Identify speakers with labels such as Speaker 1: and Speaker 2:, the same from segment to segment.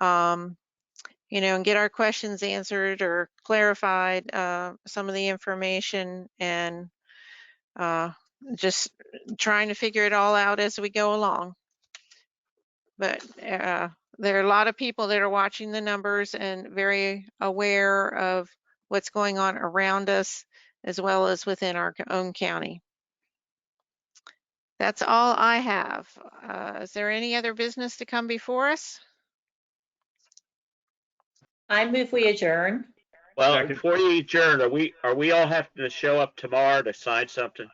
Speaker 1: um, you know, and get our questions answered or clarified, uh, some of the information and, uh, just trying to figure it all out as we go along. But, uh, there are a lot of people that are watching the numbers and very aware of what's going on around us as well as within our own county. That's all I have. Uh, is there any other business to come before us?
Speaker 2: I move we adjourn.
Speaker 3: Well,
Speaker 4: Second.
Speaker 3: before you adjourn, are we, are we all having to show up tomorrow to sign something?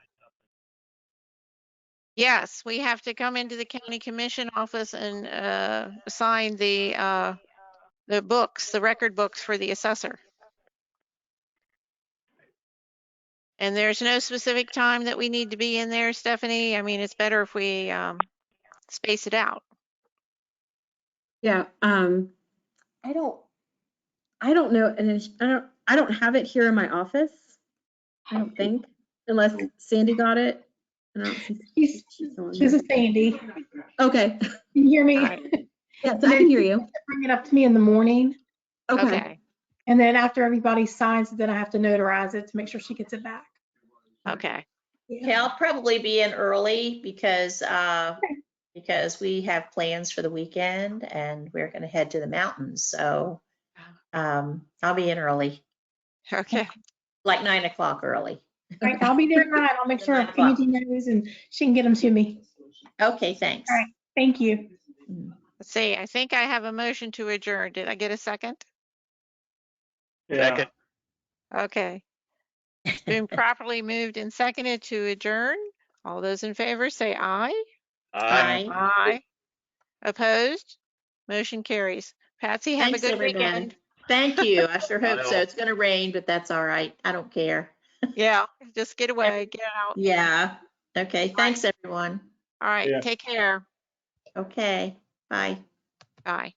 Speaker 1: Yes, we have to come into the county commission office and, uh, sign the, uh, the books, the record books for the assessor. And there's no specific time that we need to be in there, Stephanie. I mean, it's better if we, um, space it out.
Speaker 5: Yeah, um, I don't, I don't know, and it's- I don't, I don't have it here in my office, I don't think, unless Sandy got it. I don't see-
Speaker 6: She's,
Speaker 5: she's on
Speaker 6: this
Speaker 5: there.
Speaker 6: is Sandy.
Speaker 5: Okay,
Speaker 6: Can you hear me?
Speaker 1: Right.
Speaker 5: yes, I can hear you.
Speaker 6: Bring it up to me in the morning.
Speaker 5: Okay,
Speaker 1: Okay,
Speaker 6: And then after everybody signs, then I have to notarize it to make sure she gets it back.
Speaker 1: okay.
Speaker 2: Okay, I'll probably be in early because, uh, because we have plans for the weekend and we're gonna head to the mountains, so, um, I'll be in early,
Speaker 1: Okay,
Speaker 2: like nine o'clock early.
Speaker 6: All right, I'll be there tonight. I'll make sure Angie knows and she can get them to me.
Speaker 2: Okay, thanks.
Speaker 6: All right. Thank you.
Speaker 1: let's see, I think I have a motion to adjourn. Did I get a second?
Speaker 3: Second,
Speaker 1: Okay. It's been properly moved and seconded to adjourn. All those in favor say aye.
Speaker 3: aye.
Speaker 2: Bye.
Speaker 1: Aye. Opposed? Motion carries. Patsy, have a
Speaker 2: Thanks,
Speaker 1: good
Speaker 2: everyone.
Speaker 1: weekend.
Speaker 2: Thank you. I sure hope so.
Speaker 3: Well-
Speaker 2: It's gonna rain, but that's all right. I don't care.
Speaker 1: Yeah, just get away, get out.
Speaker 2: Yeah. Okay, thanks, everyone.
Speaker 1: All right,
Speaker 4: Yeah.
Speaker 1: take care.
Speaker 2: Okay, bye.
Speaker 1: Bye.